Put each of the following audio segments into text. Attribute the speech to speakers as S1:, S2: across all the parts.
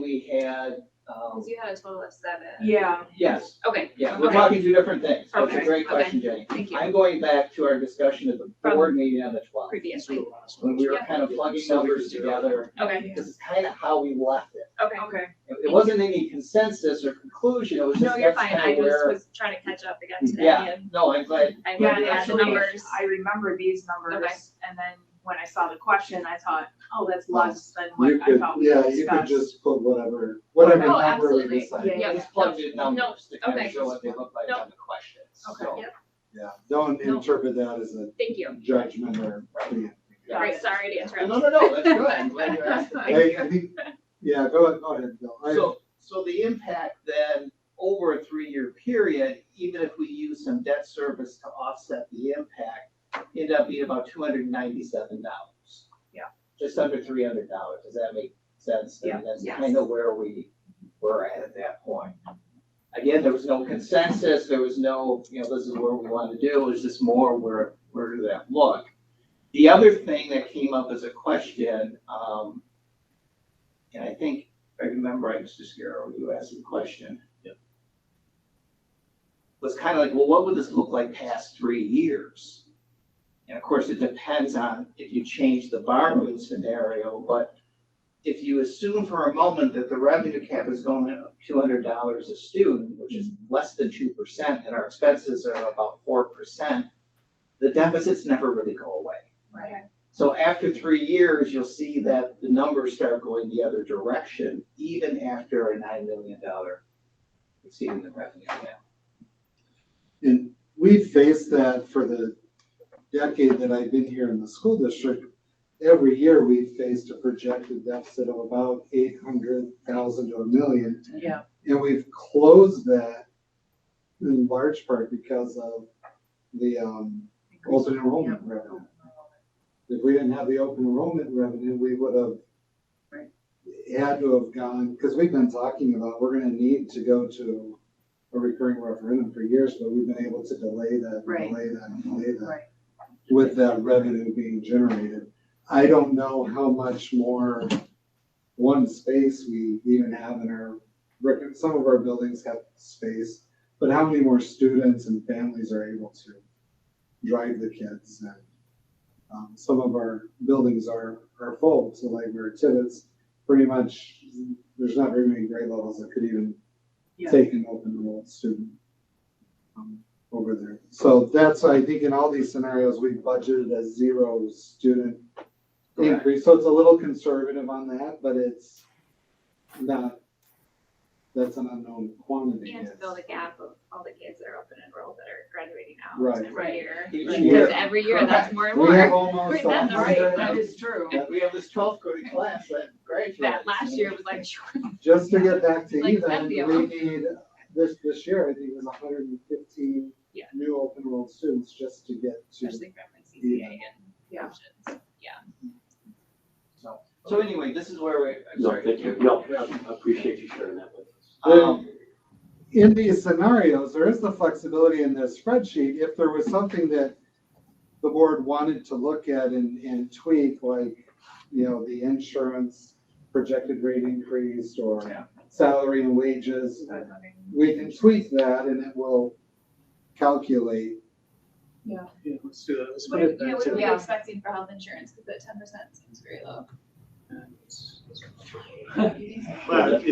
S1: we had, um,
S2: Because Oh, you had a total of seven.
S3: Yeah,
S1: yes,
S2: Okay,
S1: yeah, we're
S2: Okay.
S1: talking two different things. That's a
S2: Okay,
S1: great
S2: okay.
S1: question, Jenny.
S2: thank you.
S1: I'm going back to our discussion at the
S2: From
S1: board meeting on the twelfth.
S2: Previously.
S1: When we were
S2: Yeah.
S1: kind of plugging numbers together,
S2: Okay,
S1: this is kind of how we left it.
S2: okay.
S3: okay.
S1: It- It wasn't any consensus or conclusion, it was
S2: No,
S1: just
S2: you're
S1: that's
S2: fine.
S1: kind
S2: I
S1: of
S2: just
S1: where.
S2: was trying to catch up again
S1: Yeah.
S2: today and
S1: No, I'm glad,
S2: I
S1: Yeah,
S2: wanted to add the
S3: actually,
S2: numbers.
S3: I remember these numbers,
S2: Okay.
S3: and then when I saw the question, I thought, oh, that's less than
S4: You
S3: what I
S4: could,
S3: thought we
S4: yeah,
S3: discussed.
S4: you could just put whatever, whatever
S2: Oh,
S4: number
S2: absolutely.
S4: we decide.
S3: Yeah.
S1: it's plugged in numbers to kind
S2: okay.
S1: of show what they look like
S2: Nope.
S1: on the questions,
S3: Okay.
S1: so.
S4: Yeah, don't
S2: No.
S4: interpret that as a
S2: thank you.
S4: judgment or.
S3: Got
S2: Great,
S3: it.
S2: sorry to
S1: No,
S2: interrupt.
S1: no, no, that's good, I'm glad you're asking.
S4: I, I think, yeah, go, ahead- go ahead, Bill. I-
S1: So, so the impact then, over a three-year period, even if we use some debt service to offset the impact, end up being about two hundred and ninety-seven dollars.
S3: Yeah.
S1: Just under three hundred dollars, does that make sense? I mean,
S3: Yeah,
S1: That's
S3: yes.
S1: kind of where we were at at that point. Again, there was no consensus, there was no, you know, this is where we want to do, it was just more where, where did that look? The other thing that came up as a question, um, and I think I remember, right, Mr. Scarrow, you asked the question. Was kind of like, well, what would this look like past three years? And of course, it depends on if you change the borrowing scenario, but if you assume for a moment that the revenue cap is going up two hundred dollars a student, which is less than two percent, and our expenses are about four percent, the deficits never really go away.
S2: Right.
S1: So after three years, you'll see that the numbers start going the other direction, even after a nine million dollar exceeding the revenue cap.
S4: And we faced that for the decade that I've been here in the school district. Every year, we faced a projected deficit of about eight hundred thousand to a million.
S3: Yeah.
S4: And we've closed that in large part because of the, um, open enrollment revenue. If we didn't have the open enrollment revenue, we would have
S3: Right.
S4: had to have gone, because we've been talking about, we're gonna need to go to a recurring referendum for years, but we've been able to delay that,
S3: Right.
S4: delay that, delay that.
S3: Right.
S4: With that revenue being generated. I don't know how much more one space we even have in our, brick- some of our buildings have space, but how many more students and families are able to drive the kids and um, some of our buildings are, are full, so like we're at Tibbetts, pretty much, there's not very many grade levels that could even
S3: Yeah.
S4: take an open enrolled student um, over there. So that's, why I think in all these scenarios, we budgeted a zero student
S1: Correct.
S4: increase, so it's a little conservative on that, but it's not, that's an unknown quantity.
S2: And to
S4: yes.
S2: fill the gap of all the kids that are open enrolled that are graduating
S4: Right.
S2: now every
S3: Right.
S2: year.
S1: Each
S4: Right.
S2: Because
S1: year,
S2: every year, that's
S1: Correct.
S2: more and
S4: We have
S2: more.
S4: almost.
S2: Wait, that's
S4: a hundred
S3: Right,
S4: and-
S3: that is true.
S1: And we have this twelfth grade class that graduates.
S2: That last year was like,
S4: Just to get back to
S2: Like
S4: even,
S2: Zambia.
S4: we need, this, this year, I think it was hundred and fifteen
S2: Yeah.
S4: new open enrolled students just to get to.
S2: especially from my CCA and
S3: Yeah.
S2: options.
S1: So- So anyway, this is where we, I'm
S5: No,
S1: sorry.
S5: thank you, no, I appreciate you sharing that with us.
S1: Um,
S4: In these scenarios, there is the flexibility in this spreadsheet, if there was something that the board wanted to look at and, and tweak, like, you know, the insurance projected rate increase
S1: Yeah.
S4: or salary and wages,
S3: But, I mean,
S4: we can tweak that and it will calculate
S6: Yeah, let's do that. Let's
S2: What
S6: put
S2: are,
S6: it
S2: yeah,
S6: back
S2: what
S6: to.
S2: are we
S3: Yeah.
S2: expecting for health insurance? Because that ten percent seems very low.
S6: Well, it's-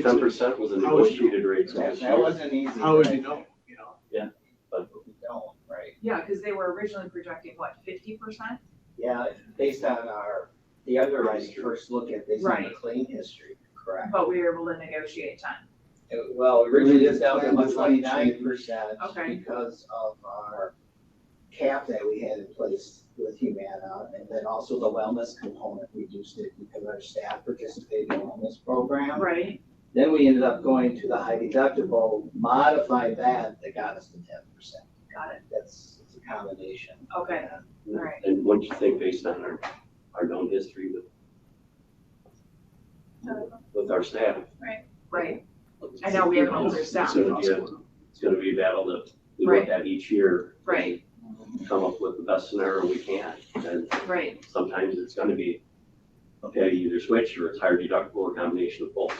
S5: Ten percent was a
S6: How would you-
S5: negotiated rate. so
S1: That
S5: it's-
S1: that wasn't easy.
S6: How would
S1: right?
S6: you know, you know?
S1: But we don't, right?
S3: Yeah, because they were originally projecting, what, fifty percent?
S1: Yeah, based on our, the underwriting first look at, based on the
S3: Right.
S1: claim history, correct?
S3: But we were able to negotiate ten.
S1: Uh, Well, originally it's down to
S4: Plan
S1: about
S4: was unchanged.
S1: twenty-nine percent
S3: Okay.
S1: because of our cap that we had in place with Humana, and then also the wellness component reduced it because our staff participated in the wellness program.
S3: Right.
S1: Then we ended up going to the high deductible, modified that, that got us to ten percent.
S3: Got it,
S1: That's, it's a combination.
S3: okay, all right.
S5: And what do you think based on our, our known history with, with our staff?
S3: Right, I know we have an older staff.
S5: So, yeah, It's gonna be a battle that we
S3: Right.
S5: look at each year.
S3: Right.
S1: um,
S5: Come up with the best scenario we can, and
S3: right.
S5: sometimes it's gonna be, okay, you either switch or it's higher deductible, a combination of both.